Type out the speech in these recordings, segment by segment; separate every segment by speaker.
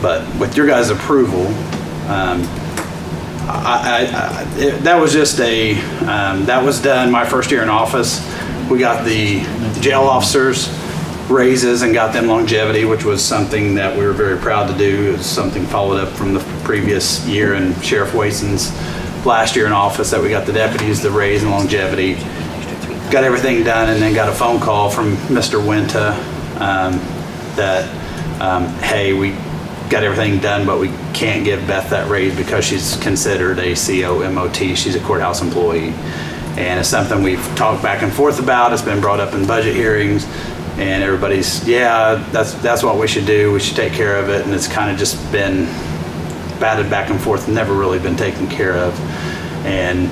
Speaker 1: But with your guys' approval, um, I, I, I, it- that was just a, um, that was done my first year in office. We got the jail officers raises and got them longevity, which was something that we were very proud to do. It was something followed up from the previous year and Sheriff Wason's last year in office that we got the deputies the raise and longevity. Got everything done and then got a phone call from Mr. Winter um, that, um, hey, we got everything done, but we can't give Beth that raise because she's considered a COMOT. She's a courthouse employee. And it's something we've talked back and forth about. It's been brought up in budget hearings. And everybody's, yeah, that's, that's what we should do. We should take care of it. And it's kind of just been batted back and forth, never really been taken care of. And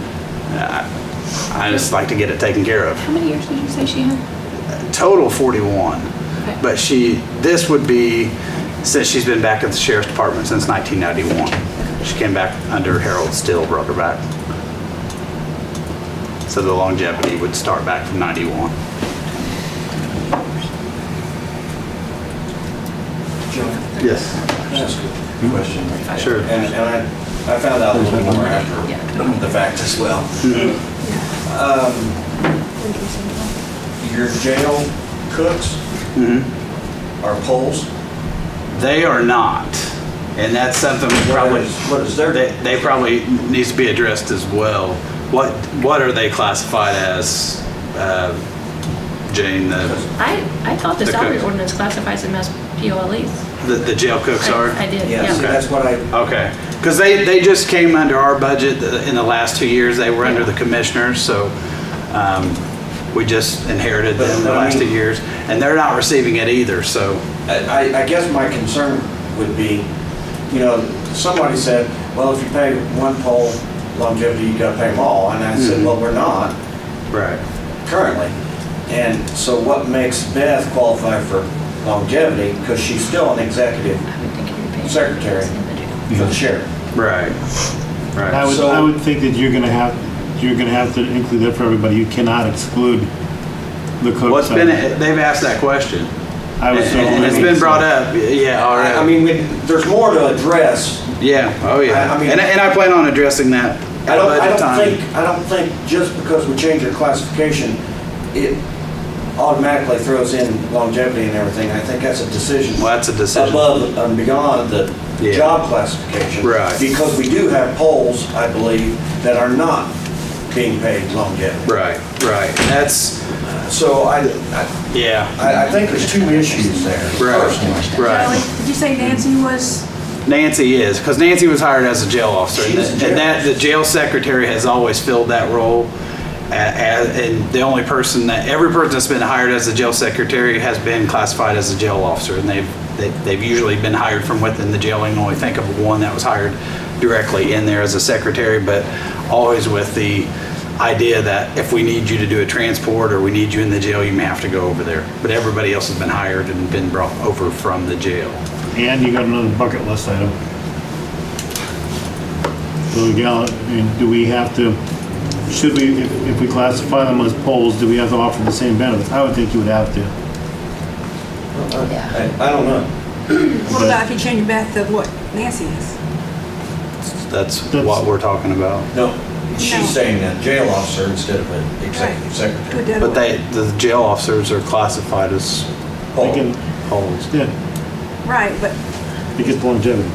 Speaker 1: uh, I, I just like to get it taken care of
Speaker 2: How many years did you say she had?
Speaker 1: total 41.
Speaker 2: Okay.
Speaker 1: But she, this would be, since she's been back at the sheriff's department since 1991. She came back under Harold Still, brought her back. So the longevity would start back from 91. Yes.
Speaker 3: That's a good question.
Speaker 1: Sure.
Speaker 3: And, and I, I found out a little more after the fact as well. Um, Your jail cooks are poles?
Speaker 1: They are not. And that's something we probably.
Speaker 3: What is- what is their-
Speaker 1: They, they probably needs to be addressed as well. What, what are they classified as, uh, Jane, the?
Speaker 2: I, I thought the
Speaker 1: The
Speaker 2: salary
Speaker 1: cook.
Speaker 2: ordinance classifies them as POLEs.
Speaker 1: The, the jail cooks
Speaker 2: I-
Speaker 1: are?
Speaker 2: I did,
Speaker 3: Yeah, see,
Speaker 2: yeah.
Speaker 3: that's what I,
Speaker 1: Okay, because they, they just came under our budget in the last two years, they were under the commissioners, so um, we just inherited them the
Speaker 3: But, I
Speaker 1: last two
Speaker 3: mean-
Speaker 1: years, and they're not receiving it either, so,
Speaker 3: I, I guess my concern would be, you know, somebody said, well, if you pay one pole longevity, you gotta pay them all. And I said, well, we're not
Speaker 1: right.
Speaker 3: currently. And so what makes Beth qualify for longevity? Because she's still an executive
Speaker 2: I would think it would be-
Speaker 3: Secretary. for the sheriff.
Speaker 1: Right,
Speaker 4: I
Speaker 1: right.
Speaker 4: would, I would think that you're gonna have, you're gonna have to include that for everybody. You cannot exclude the cook.
Speaker 1: Well, it's been,
Speaker 4: side.
Speaker 1: they've asked that question,
Speaker 4: I
Speaker 1: and
Speaker 4: was so
Speaker 1: and it's
Speaker 4: limited,
Speaker 1: been
Speaker 4: so-
Speaker 1: brought up, yeah, all right.
Speaker 3: I I mean, we- there's more to address.
Speaker 1: Yeah, oh
Speaker 3: I-
Speaker 1: yeah,
Speaker 3: I mean-
Speaker 1: and, and I plan on addressing that
Speaker 3: I
Speaker 1: at
Speaker 3: don't, I
Speaker 1: budget
Speaker 3: don't
Speaker 1: time.
Speaker 3: think, I don't think just because we change our classification, it automatically throws in longevity and everything. I think that's a decision.
Speaker 1: Well, that's a decision.
Speaker 3: Above and beyond the
Speaker 1: Yeah.
Speaker 3: job classification.
Speaker 1: Right.
Speaker 3: Because we do have polls, I believe, that are not being paid longevity.
Speaker 1: Right, right, that's,
Speaker 3: So I, I-
Speaker 1: yeah,
Speaker 3: I, I think there's two issues there.
Speaker 1: right, right.
Speaker 5: Kelly, did you say Nancy was,
Speaker 1: Nancy is, because Nancy was hired as a jail officer.
Speaker 3: She was a jail
Speaker 1: And that, the jail secretary has always filled that role. a- a- And the only person that, every person that's been hired as a jail secretary has been classified as a jail officer. And they've, they- they've usually been hired from within the jail. I can only think of one that was hired directly in there as a secretary, but always with the idea that if we need you to do a transport or we need you in the jail, you may have to go over there. But everybody else has been hired and been brought over from the jail.
Speaker 4: And you got another bucket list item. So again, I mean, do we have to, should we, if, if we classify them as polls, do we have to offer the same benefits? I would think you would have to.
Speaker 3: I I don't know.
Speaker 5: what about if you change Beth to what Nancy is?
Speaker 1: That's
Speaker 4: That's-
Speaker 1: what we're talking about.
Speaker 3: No,
Speaker 5: No.
Speaker 3: she's saying a jail officer instead of an executive
Speaker 5: Right. Do it
Speaker 3: secretary.
Speaker 5: the other
Speaker 1: But
Speaker 5: way.
Speaker 1: they, the jail officers are classified as
Speaker 4: They
Speaker 3: Paul,
Speaker 4: can,
Speaker 1: holes.
Speaker 4: yeah,
Speaker 5: Right, but
Speaker 4: it gets longevity.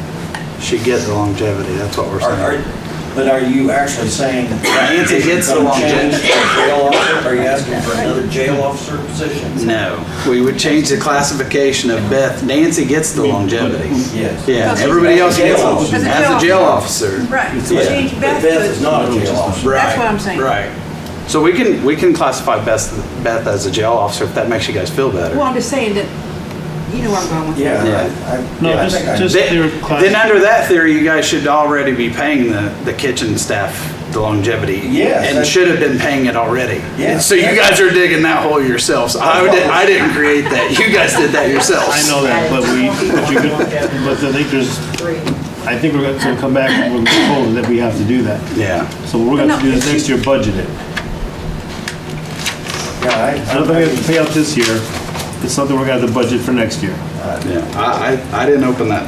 Speaker 1: She gets the longevity, that's what we're
Speaker 3: are- are-
Speaker 1: saying.
Speaker 3: But are you actually saying?
Speaker 1: Nancy gets the
Speaker 3: Gonna
Speaker 1: longevity.
Speaker 3: change the jail officer? Are you asking for another jail officer position?
Speaker 1: No, we would change the classification of Beth. Nancy gets the longevity.
Speaker 3: Yes.
Speaker 1: Yeah,
Speaker 5: Because-
Speaker 1: everybody else
Speaker 3: Jail
Speaker 1: gets
Speaker 3: officer.
Speaker 1: it as a jail officer.
Speaker 5: Right, so
Speaker 1: Yeah.
Speaker 5: change
Speaker 3: But
Speaker 5: Beth
Speaker 3: Beth is
Speaker 5: to,
Speaker 3: not a jail officer.
Speaker 5: That's what I'm
Speaker 1: Right,
Speaker 5: saying.
Speaker 1: Right. So we can, we can classify Beth, Beth as a jail officer if that makes you guys feel better.
Speaker 5: well, I'm just saying that, you know where I'm going with
Speaker 3: Yeah,
Speaker 5: that.
Speaker 3: I- I-
Speaker 4: No,
Speaker 3: yeah, I
Speaker 4: just-
Speaker 3: think I-
Speaker 4: just-
Speaker 1: Then,
Speaker 4: They're class-
Speaker 1: then under that theory, you guys should already be paying the, the kitchen staff the longevity.
Speaker 3: Yes,
Speaker 1: And
Speaker 3: that's-
Speaker 1: should have been paying it already.
Speaker 3: Yeah.
Speaker 1: So you guys are digging that hole yourselves. I didn't, I didn't create that. You guys did that yourselves.
Speaker 4: I know that, but we, but you could, but I think there's, I think we're gonna so come back and we're told that we have to do that.
Speaker 1: Yeah.
Speaker 4: So what we're gonna have to do is
Speaker 5: No,
Speaker 4: next year budget it.
Speaker 3: yeah, I-
Speaker 4: I don't think we have to pay out this year. It's something we're gonna have to budget for next year.
Speaker 1: Yeah. I, I, I didn't open that